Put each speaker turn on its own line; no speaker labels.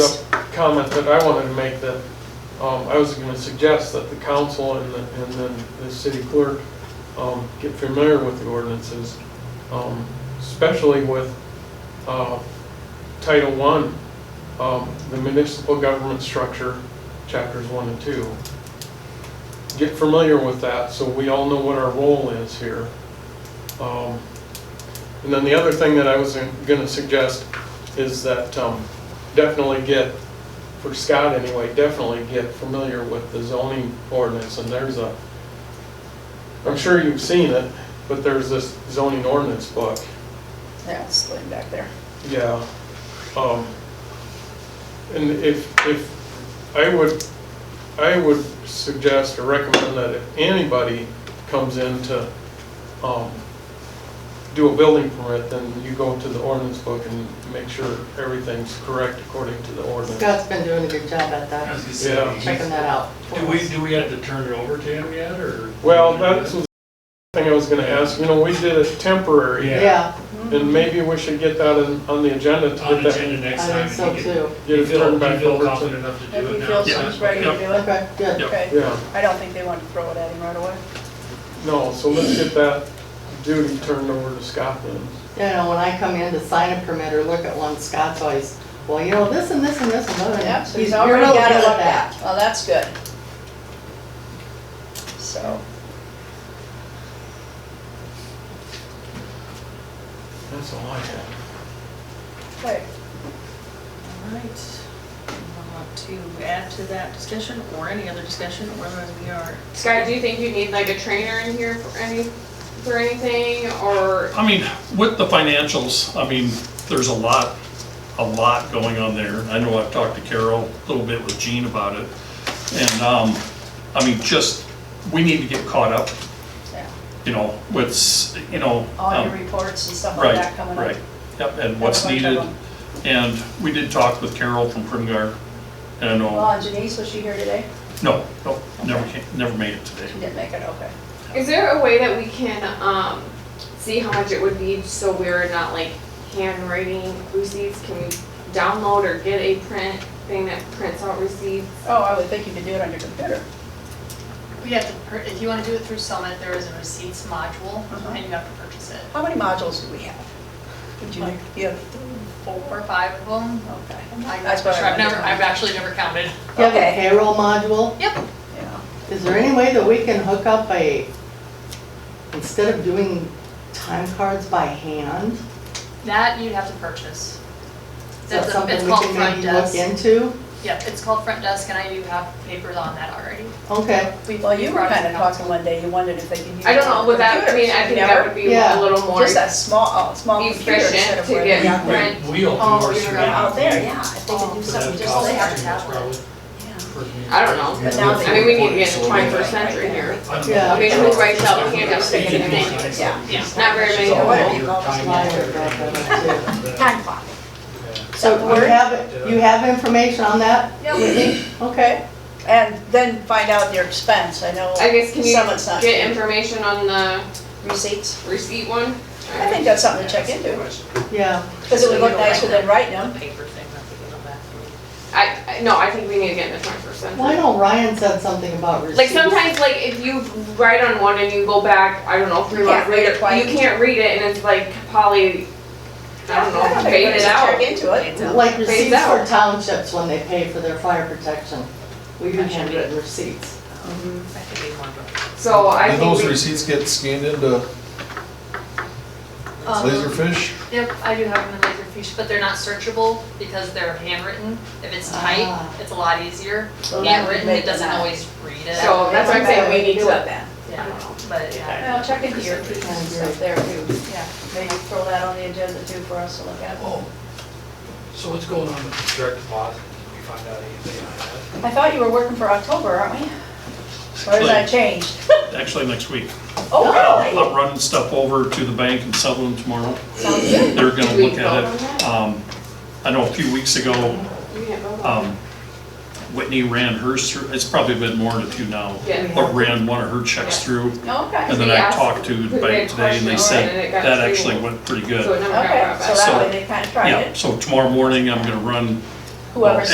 comment that I wanted to make that, um, I was gonna suggest that the council and the, and then the city clerk, um, get familiar with the ordinances, um, especially with, uh, Title One, um, the municipal government structure, chapters one and two. Get familiar with that, so we all know what our role is here. Um, And then the other thing that I was gonna suggest is that, um, definitely get, for Scott anyway, definitely get familiar with the zoning ordinance, and there's a, I'm sure you've seen it, but there's this zoning ordinance book,
Yeah, it's laying back there.
yeah. Um, And if, if, I would, I would suggest or recommend that if anybody comes in to um, do a building permit, then you go to the ordinance book and make sure everything's correct according to the ordinance.
Scott's been doing a good job at
I was
that,
gonna say,
Yeah.
he's-
checking that out. for
Do we,
us.
do we have to turn it over to him yet, or?
Well, that's the thing I was gonna ask, you know, we did it temporary,
Yeah.
Yeah,
and maybe we should get that on on the agenda to
On
get that,
agenda next
I
time.
think so
and he can-
too.
get
You
it
feel,
turned
you
back
feel
over to.
confident enough to
If
do it
you
now?
feel
so-
someone's ready to do it,
Okay, good.
okay.
Yeah,
I don't think they want to throw it at him right away.
no, so let's get that duty turned over to Scott then.
You know, when I come in to sign a permit or look at one, Scott's always, well, you know, this and this and this and that.
Yep, so he's
you're
already
really
got it
good at
looked at. Well, that's good. So,
That's all I have.
okay,
All right. Want to add to that discussion or any other discussion, whether we are,
Scott, do you think you need like a trainer in here for any, for anything, or,
I mean, with the financials, I mean, there's a lot, a lot going on there. I know I've talked to Carol a little bit with Gene about it. And, um, I mean, just, we need to get caught up,
yeah.
you know, with, you know.
All
um,
your reports and stuff like that
Right,
coming up.
right. Yep, and what's
Have a bunch of
needed.
them.
And we did talk with Carol from Primgar. And I
Well,
know,
and Janice, was she here today?
no, no, never, came- never made it today.
She didn't make it, okay.
is there a way that we can, um, see how much it would be so we're not like handwriting receipts? Can we download or get a print thing that prints out receipts?
Oh, I would think you could do it on your computer.
We'd have to, pur- if you want to do it through Summit, there is a receipts module,
Uh-huh.
and you have to purchase it.
How many modules do we have? Would you,
Like-
you have,
Four or five of them.
okay.
I'm not
That's what
sure,
I
I've never,
remember.
I've actually never counted.
You have a
Okay.
payroll module.
Yep.
Yeah.
Is there any way that we can hook up a, instead of doing time cards by hand?
That you'd have to purchase.
Is that
That's a-
something
It's
we
called
can
front
maybe look
desk.
into?
Yep, it's called front desk, and I do have papers on that already.
Okay,
We-
Well, you
we
were
brought it
kind of
up.
talking one day, you wondered if they could use.
I don't know,
with
would that, I mean, I think that would be
Yeah.
a little more
Just a small, a small computer instead
efficient
of
to
where.
get
Yeah.
print.
We- We'll do
Oh,
ours
you're
through
right.
that.
Out there, yeah, if they could do
But
something
Oh,
just
that'd
like
cost
have
that.
to
too
have
much
one.
probably.
Yeah.
For me.
I don't know.
But now they-
I mean, we need to get in
So
the
we're-
twenty-first century here.
I don't
Yeah.
know.
I mean, who writes out handouts
You
and
can
everything?
design
Yeah.
something.
Yeah.
Not very many.
It's all
What if
your
you call
time
Why
and
I brought
effort.
that up too.
Time clock.
So we have, you have information on that?
Yeah, we do. Okay, and then find out their expense, I know.
I guess, can
Someone's
you
not
get
getting
information on the
receipts.
receipt one?
I think that's something to check into,
Yeah,
because it would look nicer than writing
The
them.
paper thing, that's a good one back.
I, I- no, I think we need to get in the twenty-first century.
well, I know Ryan said something about receipts.
Like sometimes, like if you write on one and you go back, I don't know, three
You
months
can't read
later,
it twice.
you can't read it, and it's like probably, I don't know,
think
faded
it's a Check
out.
into it.
Like receipts for
out.
townships when they pay for their fire protection. We do handwritten receipts.
I think we want to.
So I
Do those
think we,
receipts get scanned into
Um,
Laserfish?
Yep, I do have them in Laserfish, but they're not searchable because they're handwritten. If it's
Ah.
typed, it's a lot easier.
Well, that would
Handwritten,
make
it doesn't
them out.
always read it.
So that's what I'm saying, we need
Do
to-
it then.
Yeah, but yeah.
Well, check into your receipts and stuff there too.
Yeah.
Maybe throw that on the agenda too for us to look at.
Oh, so what's going on with direct deposit? Did we find out anything on that?
I thought you were working for October, aren't we? Or has that changed?
Actually, next week.
Oh,
I'll-
really?
I'm running stuff over to the bank in Sutherland tomorrow.
Sounds good.
They're gonna
Did we
look
vote
at
on that?
it. Um, I know a few weeks ago,
you can't vote on
um, Whitney ran hers through, it's probably been more than a few now.
Yeah.
But ran one of her checks through,
Okay.
and then
They
I
asked-
talked to the
they
bank
had
today, and they
questions,
said
and it got
that
through.
actually went pretty
it, so it
good.
never got
Okay,
brought back.
so that way they kind of tried
Yeah,
it.
so tomorrow morning, I'm gonna run
Whoever's